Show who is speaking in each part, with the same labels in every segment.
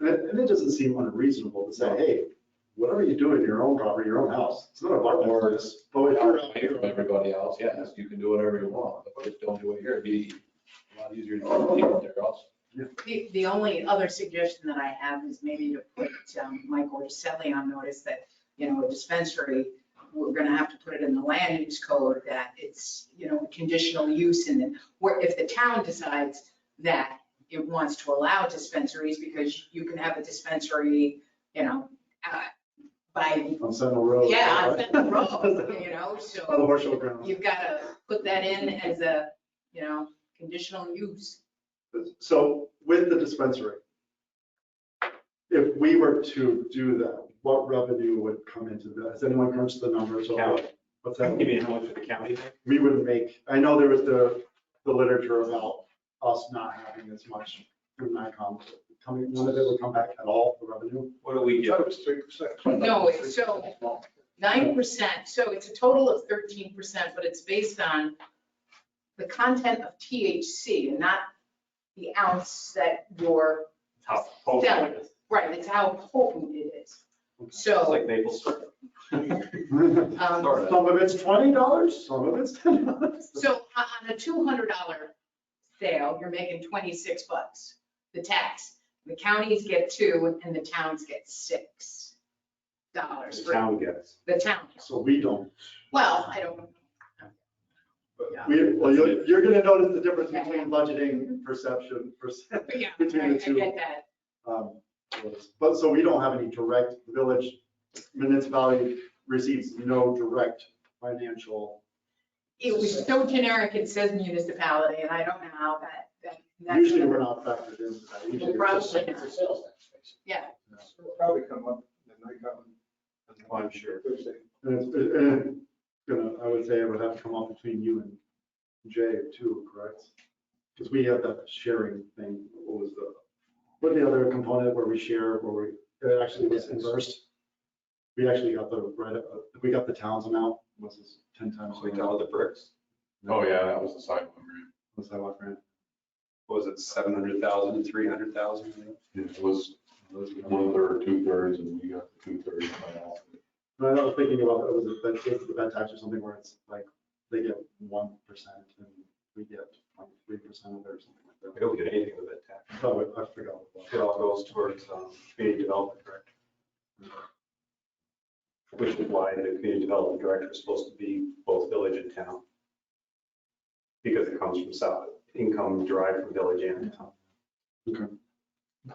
Speaker 1: And it doesn't seem unreasonable to say, hey, whatever you do in your own property, your own house, it's not a bar business. But if you're out
Speaker 2: Here,
Speaker 1: here,
Speaker 2: everybody else, yes, you can do whatever you want, but just don't do it here, it'd be a lot easier to leave it there also.
Speaker 3: The, the only other suggestion that I have is maybe to put um, Michael Selly on notice that, you know, a dispensary, we're gonna have to put it in the land use code that it's, you know, conditional use and then, or if the town decides that it wants to allow dispensaries, because you can have a dispensary, you know, uh, by,
Speaker 1: on Sentinel Road.
Speaker 3: yeah, on Fenton Road, you know, so.
Speaker 1: On the Marshall grounds.
Speaker 3: You've gotta put that in as a, you know, conditional use.
Speaker 1: So with the dispensary, if we were to do that, what revenue would come into that? Has anyone crunched the numbers? or
Speaker 4: County.
Speaker 1: What's
Speaker 4: That
Speaker 1: that?
Speaker 4: would give you how much for the county then?
Speaker 1: We would make, I know there was the, the literature about us not having as much from NICOM. Coming, none of it would come back at all, the revenue.
Speaker 4: What do we get?
Speaker 3: No, it's so- Nine percent, so it's a total of thirteen percent, but it's based on the content of THC and not the ounce that you're,
Speaker 4: How potent
Speaker 3: Yeah.
Speaker 4: it is.
Speaker 3: right, it's how potent it is.
Speaker 4: It's
Speaker 3: So,
Speaker 4: like maple syrup.
Speaker 3: um,
Speaker 2: Sorta.
Speaker 1: Some of it's twenty dollars, some of it's ten dollars.
Speaker 3: so on on a two hundred dollar sale, you're making twenty-six bucks, the tax. The counties get two and the towns get six dollars
Speaker 4: The
Speaker 3: for
Speaker 4: town gets.
Speaker 3: the town.
Speaker 1: So we don't,
Speaker 3: Well, I don't, Yeah.
Speaker 1: we, well, you're, you're gonna notice the difference between budgeting, perception, percent.
Speaker 3: but yeah, I
Speaker 1: Between
Speaker 3: I
Speaker 1: the two.
Speaker 3: get that.
Speaker 1: um, was- But, so we don't have any direct, the village municipality receives no direct financial.
Speaker 3: It was so generic, it says municipality, and I don't know how that, that. that's-
Speaker 1: Usually we're not factored into that. Usually
Speaker 3: Well,
Speaker 1: it's just-
Speaker 3: probably
Speaker 5: It's a sales tax. basically.
Speaker 3: Yeah.
Speaker 5: It'll Probably come up, and I come.
Speaker 2: Oh,
Speaker 4: I'm sure.
Speaker 5: Thursday.
Speaker 1: and it's- and, you know, I would say it would have to come up between you and Jay too, correct? Because we have that sharing thing, what was the, what the other component where we share, where we, it actually was inversed. We actually got the, right, uh, we got the town's amount, was this ten times?
Speaker 4: We got all the bricks.
Speaker 2: Oh, yeah, that was the sidewalk grant.
Speaker 1: The sidewalk grant.
Speaker 4: What was it, 700,000, 300,000?
Speaker 2: It was one third, two thirds, and we got two thirds by all.
Speaker 1: No, I was thinking about, it was a bed, it's the bed tax or something where it's like, they get one percent and we get like three percent of it or something like
Speaker 4: We
Speaker 1: that.
Speaker 4: don't get anything with that tax.
Speaker 1: So I I forgot. what
Speaker 4: It
Speaker 1: it was.
Speaker 4: all goes towards um, community development director. Which is why the community development director is supposed to be both village and town. Because it comes from south, income derived from village and town.
Speaker 1: Okay.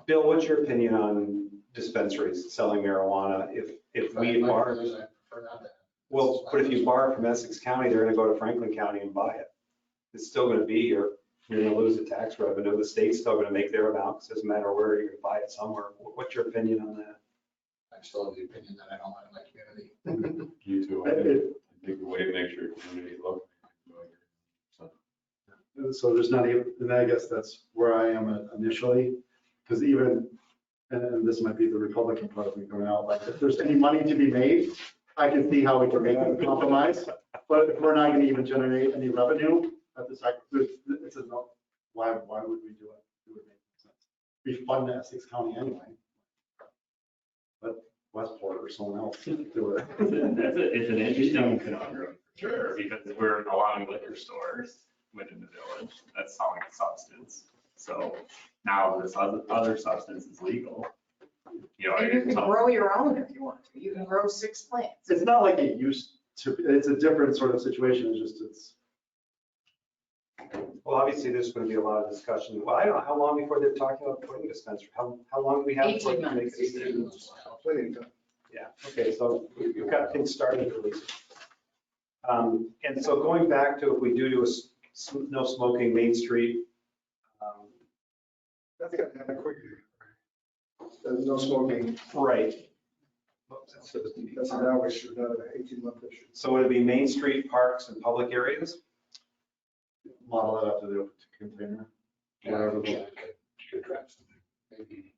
Speaker 4: Bill, what's your opinion on dispensaries selling marijuana? If, if we
Speaker 5: My- my
Speaker 4: bar,
Speaker 5: feeling is I prefer not to.
Speaker 4: well, but if you bar from Essex County, they're gonna go to Franklin County and buy it. It's still gonna be your, you're gonna lose the tax revenue. The state's still gonna make their amount. 'cause It doesn't matter where, you're gonna buy it somewhere. What- What's your opinion on that?
Speaker 5: I'm still of the opinion that I don't want it in my community.
Speaker 1: Mm-hmm.
Speaker 2: You two, I
Speaker 1: It-
Speaker 2: think,
Speaker 1: it-
Speaker 2: I think the way to make sure your community look.
Speaker 1: and So there's not even, and I guess that's where I am initially, because even, and, and this might be the Republican part of me going out, like if there's any money to be made, I can see how we can make a compromise, but if we're not going to even generate any revenue at the sacrifice, it's a no, why, why would we do it? It would make no sense. We fund Essex County anyway. Let Westport or someone else do it.
Speaker 6: That's a, it's an interesting conundrum, for sure, because we're allowing liquor stores within the village that's selling a substance. So now this other, other substance is legal. You know,
Speaker 3: And you can
Speaker 6: it's all-
Speaker 3: grow your own if you want to. You can grow six plants.
Speaker 1: It's not like it used to, be. it's a different sort of situation, it's just, it's,
Speaker 4: Well, obviously, there's going to be a lot of discussion. Well, I don't know, how long before they're talking about putting a dispensary? How, how long do we have? before
Speaker 3: 18
Speaker 4: we make a
Speaker 3: months.
Speaker 4: decision?
Speaker 5: Plenty of time.
Speaker 4: Yeah, okay, so we have got things started at least. Um, And so going back to if we do do a s- s- no smoking Main Street, um,
Speaker 5: That's gonna happen quickly. There's no smoking.
Speaker 4: right,
Speaker 5: That's an hour issue, not an eighteen month issue.
Speaker 4: so it'd be Main Street parks and public areas?
Speaker 1: model that after the open container. Whatever the-
Speaker 5: You could draft something, maybe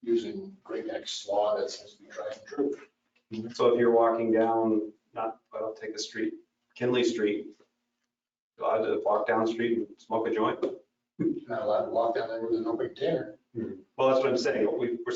Speaker 5: using grade X law that seems to be tried and true.
Speaker 4: So if you're walking down, not, well, take a street, Kinley Street, allowed to walk down the street and smoke a joint?
Speaker 5: You're Not allowed to walk down there with an open container.
Speaker 4: Well, that's what I'm saying, we, we're